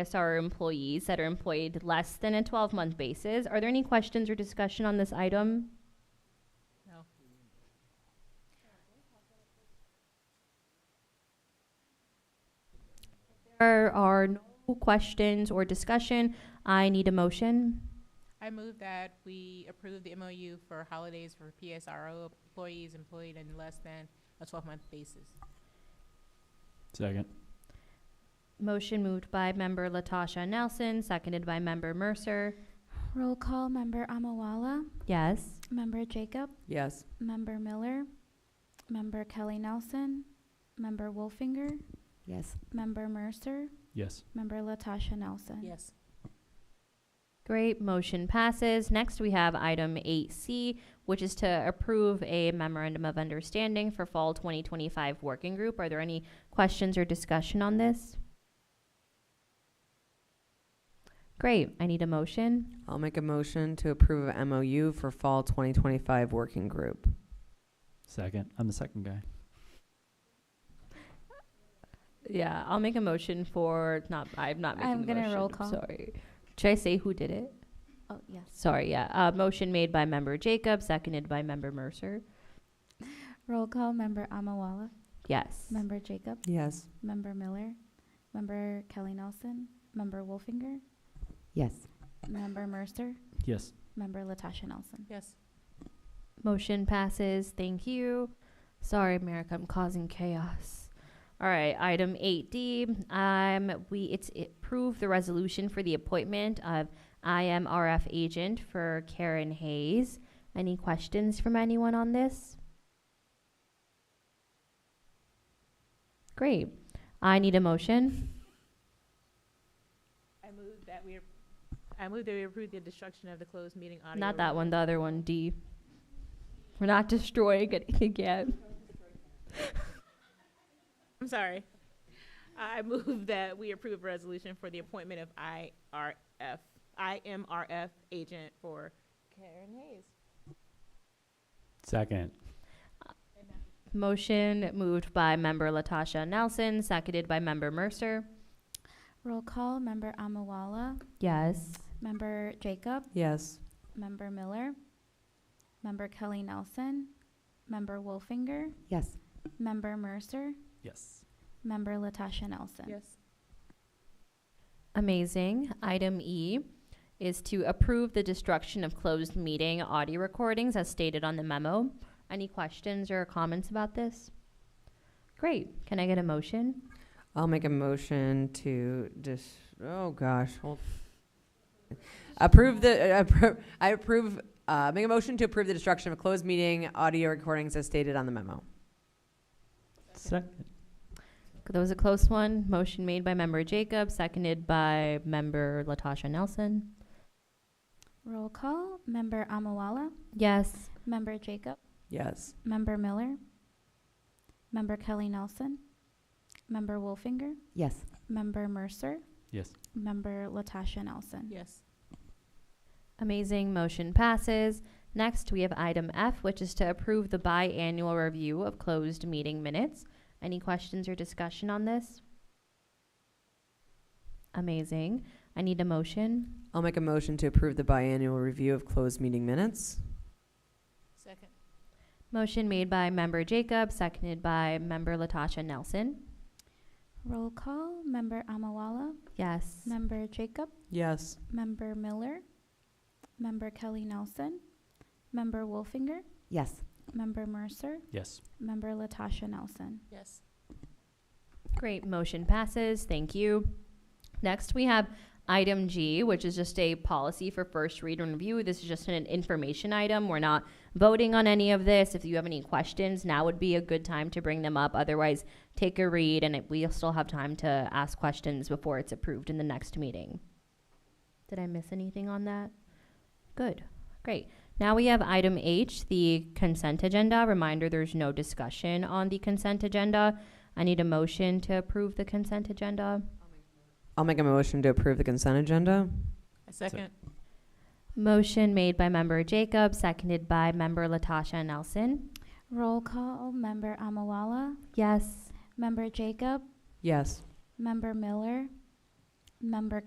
ISR employees that are employed less than a 12-month basis. Are there any questions or discussion on this item? No. There are no questions or discussion. I need a motion. I move that we approve the MOU for holidays for PSRO employees employed in less than a twelve-month basis. Second. Motion moved by member Latasha Nelson, seconded by member Mercer. Roll call, Member Amawala, Yes. Member Jacob, Yes. Member Miller, Member Kelly Nelson, Member Wolfinger, Yes. Member Mercer, Yes. Member Latasha Mm. Nelson. Yes. Great, motion passes. Next, we have item 8C, which is to approve a memorandum of understanding for Fall 2025 Working Group. Are there any questions or discussion on this? Great, I need a motion. I'll make a motion to approve of MOU for Fall 2025 Working Group. Second. I'm the second guy. Yeah, I'll make a motion for, not, I'm not making I'm the motion. gonna roll call. Sorry. Should I say who did it? Oh, yes. Sorry, yeah. Uh, motion made by member Jacob, seconded by member Mercer. Roll call, Member Amawala, Yes. Member Jacob, Yes. Member Miller, Member Kelly Nelson, Member Wolfinger, Yes. Member Mercer, Yes. Member Latasha Nelson. Yes. Motion passes. Thank you. Sorry, America, I'm causing chaos. All right, item 8D. Um, we it's it, approve the resolution for the appointment of IMRF agent for Karen Hayes. Any questions from anyone on this? Great. I need a motion. I move that we, I move that we approve the destruction of the closed meeting audio. Not that one, the other one, D. We're not destroying it again. I'm sorry. I move that we approve a resolution for the appointment of IRF, IMRF agent for Karen Hayes. Second. Motion moved by member Latasha Nelson, seconded by member Mercer. Roll call, Member Amawala, Yes. Member Jacob, Yes. Member Miller, Member Kelly Nelson, Member Wolfinger, Yes. Member Mercer, Yes. Member Latasha Nelson. Yes. Amazing. Item E is to approve the destruction of closed meeting audio recordings as stated on the memo. Any questions or comments about this? Great. Can I get a motion? I'll make a motion to dis, oh gosh, hold. Approve the, uh, appro- I approve, uh, make a motion to approve the destruction of closed meeting audio recordings as stated on the memo. Second. That was a close one. Motion made by member Jacob, seconded by member Latasha Nelson. Roll call, Member Amawala, Yes. Member Jacob, Yes. Member Miller, Member Kelly Nelson, Member Wolfinger, Yes. Member Mercer, Yes. Member Latasha Nelson. Yes. Amazing, motion passes. Next, we have item F, which is to approve the biannual review of closed meeting minutes. Any questions or discussion on this? Amazing. I need a motion. I'll make a motion to approve the biannual review of closed meeting minutes. Second. Motion made by member Jacob, seconded by member Latasha Nelson. Roll call, Member Amawala, Yes. Member Jacob, Yes. Member Miller, Member Kelly Nelson, Member Wolfinger, Yes. Member Mercer, Yes. Member Latasha Nelson. Yes. Great, motion passes, thank you. Next, we have item G, which is just a policy for first read and review. This is just an information item, we're not voting on any of this. If you have any questions, now would be a good time to bring them up. Otherwise, take a read, and it- we'll still have time to ask questions before it's approved in the next meeting. Did I miss anything on that? Good, great. Now we have item H, the consent agenda. Reminder, there's no discussion on the consent agenda. I need a motion to approve the consent agenda. I'll make a motion to approve the consent agenda. A second. Motion made by member Jacob, seconded by member Latasha Nelson. Roll call, Member Amawala, Yes. Member Jacob, Yes. Member Miller, Member